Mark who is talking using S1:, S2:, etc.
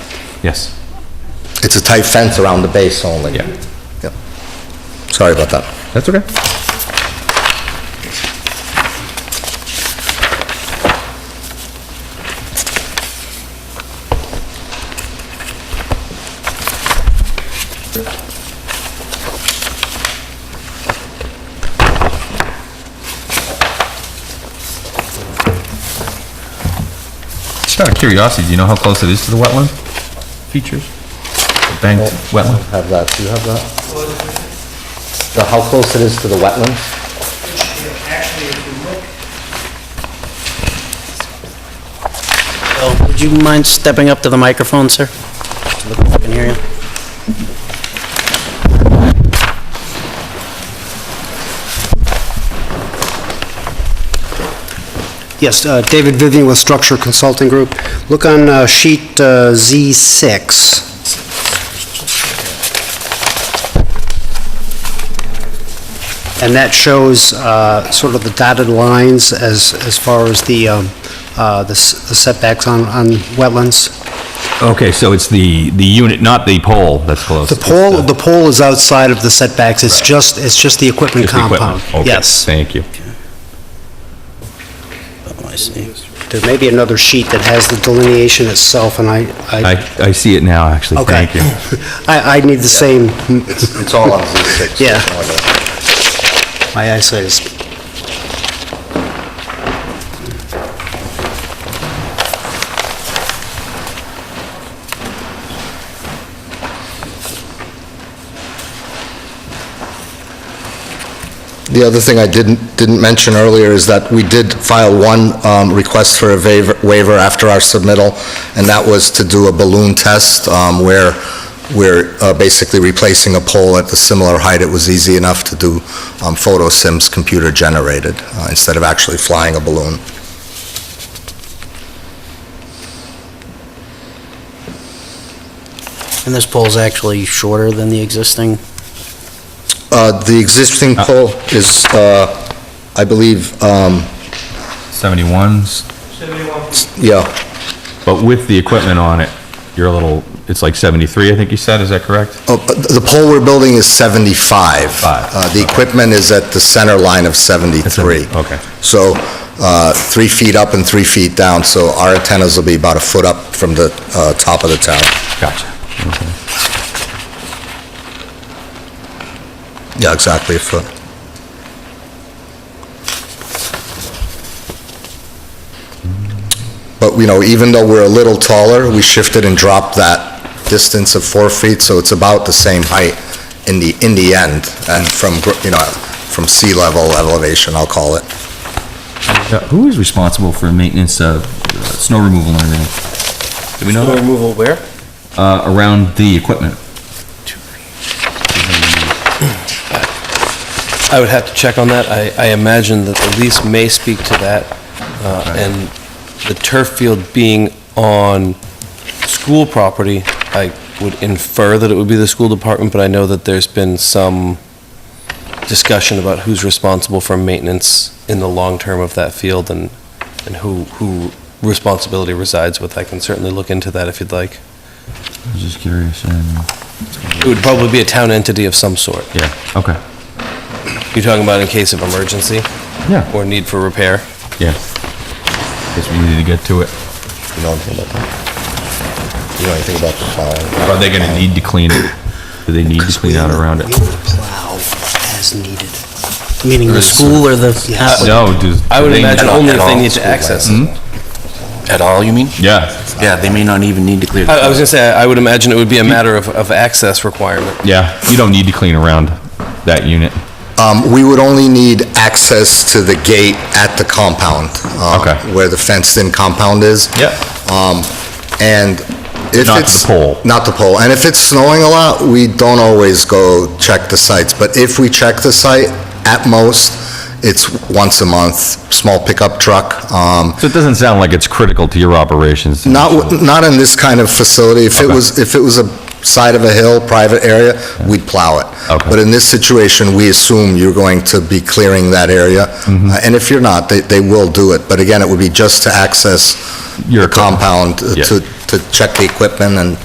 S1: Yes.
S2: It's a tight fence around the base only.
S1: Yeah.
S2: Yep. Sorry about that.
S1: That's okay. Just out of curiosity, do you know how close it is to the wetland features? The Banked wetland?
S2: Have that, do you have that? So How close it is to the wetlands?
S3: Actually, if you look... Bill, would you mind stepping up to the microphone, sir? Look if I can hear you.
S4: Yes, uh, David Vivian with Structure Consulting Group. Look on uh, sheet uh, Z6. And that shows uh, sort of the dotted lines as, as far as the um, uh, the s- the setbacks on, on wetlands.
S1: Okay, so it's the, the unit, not the pole that's close.
S4: The
S1: uh,
S4: pole, the pole is outside of the setbacks, it's just, it's just the equipment
S1: Just the
S4: compound.
S1: equipment. Okay,
S4: Yes.
S1: Thank you.
S3: Oh, I see.
S4: There may be another sheet that has the delineation itself, and I, I,
S1: I, I see it now, actually.
S4: Okay.
S1: Thank you.
S4: I I need the same,
S2: It's all on Z6.
S4: Yeah. my eyesight is
S2: The other thing I didn't, didn't mention earlier is that we did file one um, request for a waiver waiver after our submittal, and that was to do a balloon test um, where we're uh, basically replacing a pole at the similar height. It was easy enough to do um, photo sims computer-generated uh, instead of actually flying a balloon.
S3: And this pole's actually shorter than the existing?
S2: Uh, The existing pole is, uh, I believe, um,
S1: 71s,
S2: yeah,
S1: but with the equipment on it, you're a little, it's like 73, I think you said, is that correct?
S2: Oh, but the pole we're building is 75.
S1: Five,
S2: Uh, The equipment is at the center line of 73.
S1: That's it, okay.
S2: So uh, three feet up and three feet down, so our antennas will be about a foot up from the uh, top of the tower.
S1: Gotcha. Okay.
S2: Yeah, exactly, a foot. But, you know, even though we're a little taller, we shifted and dropped that distance of four feet, so it's about the same height in the, in the end, and from, gr- you know, from sea level elevation, I'll call it.
S1: Uh, Who is responsible for maintenance of uh, snow removal and everything? Do we know that?
S3: removal where?
S1: Uh, around the equipment.
S5: I would have to check on that. I, I imagine that the lease may speak to that, uh, and the turf field being on school property, I would infer that it would be the school department, but I know that there's been some discussion about who's responsible for maintenance in the long term of that field and, and who, who responsibility resides with. I can certainly look into that if you'd like.
S1: I was just curious, and,
S5: It would probably be a town entity of some sort.
S1: yeah, okay.
S5: You're talking about in case of emergency
S1: Yeah.
S5: or need for repair?
S1: Yeah. Guess we needed to get to it.
S2: You know anything about that? You know anything about the plowing?
S1: Are they gonna need to clean it? Do they need to clean out around it?
S4: We would plow as needed.
S3: Meaning the school or the...
S4: Yes.
S1: No, do.
S5: I would
S1: do they-
S5: imagine only if
S6: at
S5: they
S6: all.
S5: need to access it.
S6: At all, you mean?
S1: Yeah,
S6: Yeah, they may not even need to clear. the
S5: I I was gonna say, I would imagine it would be
S6: Hmm?
S5: a matter of, of access requirement.
S1: yeah, you don't need to clean around that unit.
S2: Um, we would only need access to the gate at the compound. um,
S1: Okay.
S2: Where the fenced-in compound is.
S1: Yep.
S2: Um, and if it's...
S1: Not the pole.
S2: Not the pole. And if it's snowing a lot, we don't always go check the sites. But if we check the site, at most, it's once a month, small pickup truck. Um,
S1: So it doesn't sound like it's critical to your operations.
S2: not, w- not in this kind of facility. If it
S1: Okay.
S2: was, if it was a side of a hill, private area, we'd plow it.
S1: Okay.
S2: But in this situation, we assume you're going to be clearing that area.
S1: Mm-hmm.
S2: Uh, And if you're not, they, they will do it. But again, it would be just to access
S1: Your
S2: your
S1: equipment.
S2: compound, uh,
S1: Yeah.
S2: to, to check the equipment and